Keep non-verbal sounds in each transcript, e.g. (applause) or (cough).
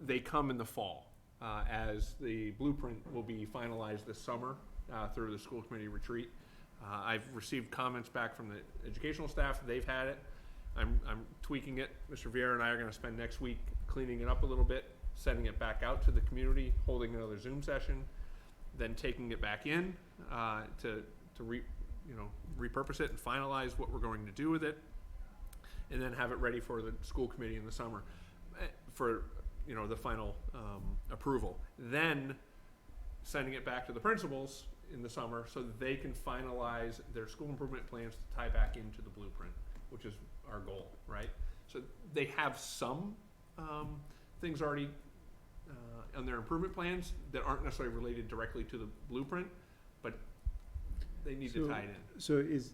they come in the fall, uh, as the blueprint will be finalized this summer uh, through the school committee retreat. Uh, I've received comments back from the educational staff, they've had it. I'm, I'm tweaking it. Mr. Vieira and I are gonna spend next week cleaning it up a little bit, sending it back out to the community, holding another Zoom session, then taking it back in, uh, to, to re, you know, repurpose it and finalize what we're going to do with it, and then have it ready for the school committee in the summer, eh, for, you know, the final, um, approval. Then, sending it back to the principals in the summer so that they can finalize their school improvement plans to tie back into the blueprint, which is our goal, right? So they have some um, things already uh, on their improvement plans that aren't necessarily related directly to the blueprint, but they need to So- tie it in. So is,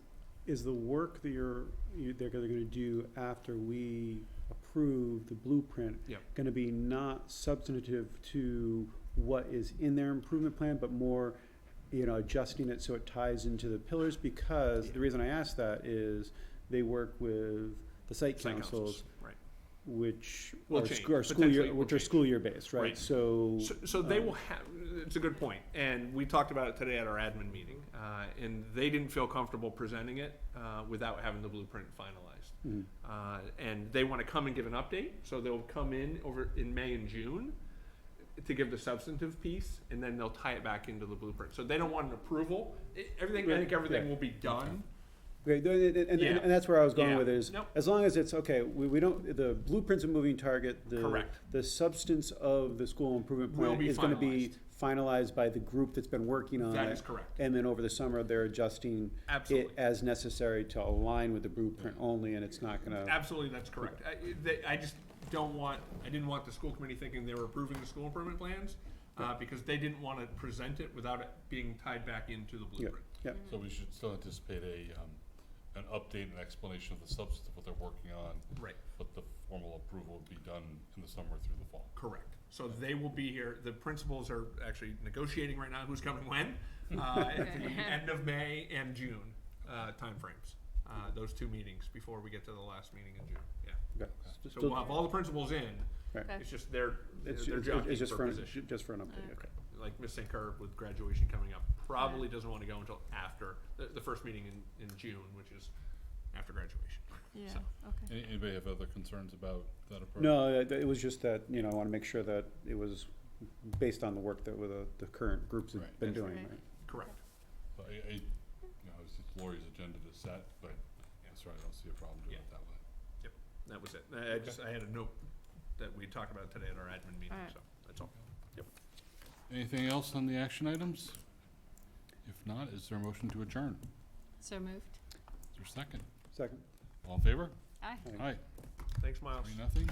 is the work that you're, you, they're gonna gonna do after we approve the blueprint? Yep. Gonna be not substantive to what is in their improvement plan, but more, you know, adjusting it so it ties into the pillars? Because the reason I ask that is they work with the site Site councils, right? which Will are, change, sc- are school potentially year, will which are change. school year based, Right. right? So, So, so they um, will have. It's a good point, and we talked about it today at our admin meeting, uh, and they didn't feel comfortable presenting it uh, without having the blueprint finalized. mhm. uh, and they want to come and give an update. So they'll come in over in May and June to give the substantive piece, and then they'll tie it back into the blueprint. So they don't want an approval. I- Everything I think Right, everything right. will be done. Okay, th- th- th- and, Yeah. and, and that's where I was going Yeah. with it is, Nope. as long as it's, okay, we, we don't, the blueprint's a moving target, the, Correct. the substance of the school improvement Will plan be is gonna be finalized by the group that's been working on it. That is correct. And then over the summer, they're adjusting it Absolutely. as necessary to align with the blueprint only, and it's not gonna, Absolutely, that's correct. I, they, I just don't want. I didn't want the school committee thinking they were approving the school improvement plans uh, because they didn't want to present it without it being tied back into the yeah, blueprint. yeah. So we should still anticipate a, um, an update and explanation of the substance of what they're working on, Right. but the formal approval would be done in the summer through the fall. Correct. So they will be here, the principals are actually negotiating right now who's coming when, (laughs) uh, at the end of May and June, uh, timeframes. Uh, those two meetings before we get to the last meeting in June, yeah. Okay. So we'll have all the principals in, Right. it's just their, It's, their it's- job it's just for for, an- position. just for an update, okay. Like Miss St. Cyr with graduation coming up, probably doesn't wanna go until after, the, the first meeting in, in June, which is after graduation. Yeah, So. okay. Any- Anybody have other concerns about that approach? No, uh, it it was just that, you know, I wanna make sure that it was based on the work that with uh, the, the current groups have Right. been That's doing, right. right? Correct. So I, I, you know, obviously it's Lori's agenda to set, but that's right, I don't see a problem doing it that way. That was it. I, I just, I had a note that we talked about today at our admin meeting, Alright. so, that's all. Anything else on the action items? If not, is there a motion to adjourn? So moved. Is there a second? Second? All in favor? Aye. Aye. Aye, Thanks, Miles. three, nothing.